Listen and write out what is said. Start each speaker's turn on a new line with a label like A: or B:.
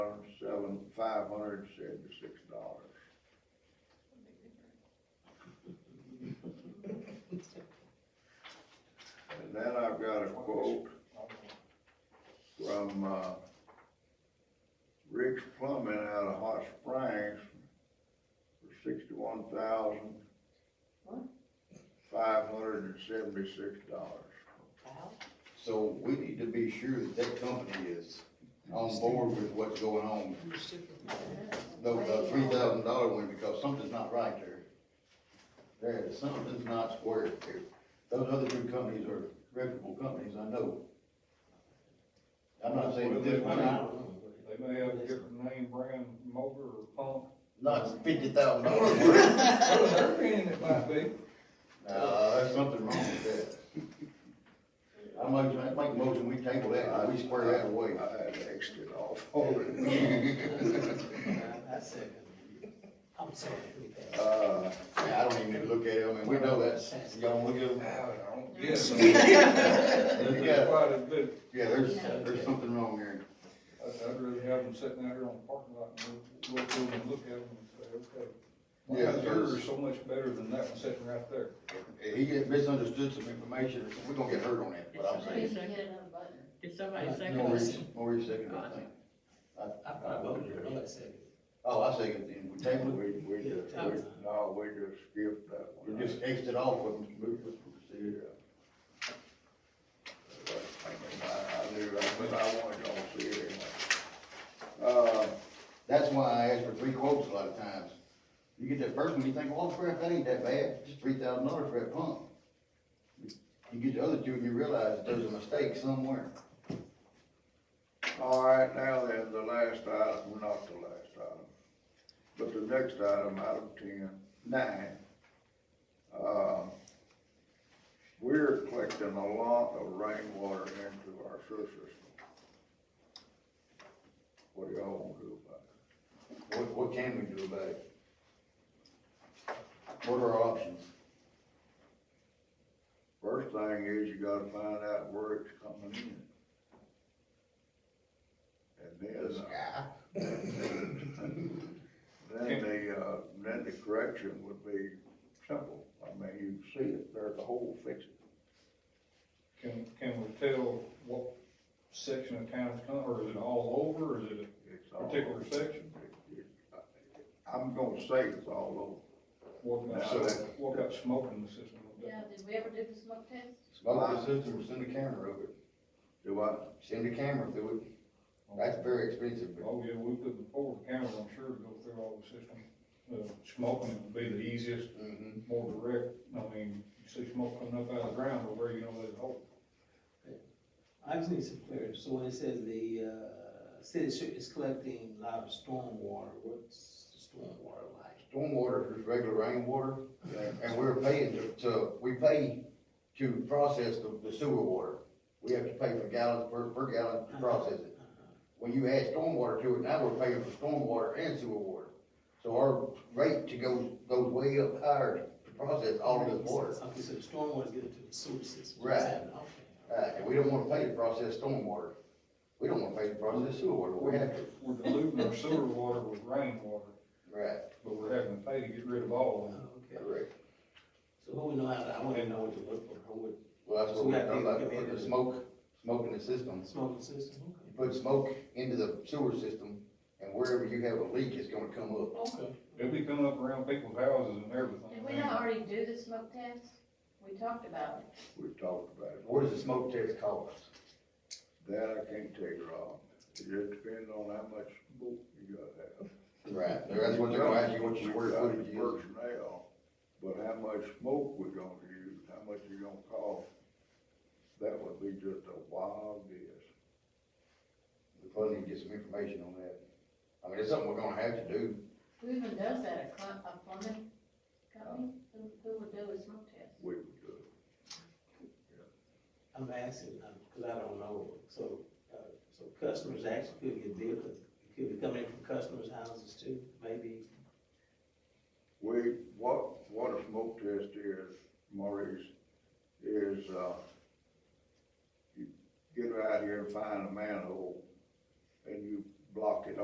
A: thousand five hundred seventy-six dollars. And then I've got a quote from, uh, Rick's Plumbing out of Hot Springs for sixty-one thousand five hundred and seventy-six dollars.
B: So we need to be sure that that company is on board with what's going on. The, the three thousand dollar one, because something's not right there. There, is- something's not square there. Those other two companies are reputable companies, I know. I'm not saying this one, I-
C: They may have a different name, brand, motor, or pump.
B: not fifty thousand dollars.
C: Their opinion it might be.
B: Nah, there's something wrong with that. I might, I make a motion, we table that, and we square that away.
A: I had Xed it off already.
D: I second. I'm sorry.
A: Uh,
B: Yeah, I don't even need to look at it, I mean, we know that's, y'all look at them.
C: Yes. There's
B: Yeah,
C: quite a bit,
B: yeah, there's, there's something wrong there.
C: I'd, I'd rather have them sitting out here on the parking lot and we'll, we'll go and look at them and say, okay. Why
B: Yeah,
C: is
B: there's-
C: yours so much better than that one sitting right there?
B: He had misunderstood some information, so we're gonna get hurt on that, but I'm saying.
E: Did somebody- Did somebody second
B: Maurice,
E: it?
B: Maurice seconded, I think.
D: I probably voted for it, I second.
B: Oh, I seconded, then we tabled it,
A: we, we just, we, no, we just skipped that one.
B: we just Xed it off, and moved it, proceeded.
A: I I knew that, but I wanted y'all to see it anyway. Uh,
B: That's why I ask for three quotes a lot of times. You get that first one, you think, well, crap, that ain't that bad, just three thousand dollars for that pump. You get the other two and you realize there's a mistake somewhere.
A: all right, now then, the last item, well, not the last item, but the next item, item ten, nine. Uh, We're collecting a lot of rainwater into our sewer system. What do y'all wanna do about it?
B: What, what can we do about it? What are our options?
A: First thing is you gotta find out where it's coming in. And then, uh, then the, uh, then the correction would be simple. I mean, you see it, there's a hole, fix it.
C: Can, can we tell what section of town it's coming, or is it all over, or is it,
A: It's all-
C: Particular section?
A: I'm gonna say it's all over.
C: what
A: No.
C: about, what about smoke in the system?
E: Yeah, did we ever do the smoke test?
B: Smoke the system, send a camera over it,
A: Do what?
B: send a camera through it, that's very expensive, but
C: Oh, yeah, we put the forward camera, I'm sure, to go through all the system. Uh, Smoking would be the easiest,
B: Mhm.
C: more direct, I mean, you see smoke coming up out of the ground, but where you know there's a hole.
D: I just need some clarity, so when it says the, uh, city sh- is collecting a lot of stormwater, what's the stormwater like?
B: stormwater is regular rainwater, and we're paying to, to, we pay to process the, the sewer water. We have to pay for gallons, per, per gallon to process it. When you add stormwater to it, now we're paying for stormwater and sewer water. So our rate to go, goes way up higher to process all of this water.
D: Okay, so the stormwater is getting to the sewer system.
B: Right.
D: Okay.
B: Uh, and we don't wanna pay to process stormwater. We don't wanna pay to process sewer water, we have to.
C: We're diluting our sewer water with rainwater,
B: Right,
C: but we're having to pay to get rid of all of
D: Okay.
B: correct.
D: So who would know how, to- I wanna know what to look for, who would,
B: Well, that's what we're talking about, put the smoke, smoke in the system.
D: smoking system, okay.
B: You put smoke into the sewer system, and wherever you have a leak, it's gonna come up.
D: Okay.
C: it. It'll be coming up around people's houses and everything.
E: Did we not already do the smoke test? We talked about it.
A: We talked about it.
B: What does the smoke test cost?
A: That I can't tell you, Rob. It just depends on how much smoke you gotta have.
B: Right, that's what they're gonna ask you, what your square footage
A: We've
B: is.
A: got the Personnel, but how much smoke we're gonna use, how much you gonna cost, that would be just a wild guess.
B: We probably need to get some information on that. I mean, it's something we're gonna have to do.
E: Who even does that, a cl- a plumbing company? Who, who would do a smoke test?
A: We would do it.
D: I'm asking, um, cause I don't know, so, uh, so customers actually could get billed, it could be coming from customers' houses too, maybe,
A: We, what, what a smoke test is, Maurice, is, uh, you get out here and find a manhole, and you block it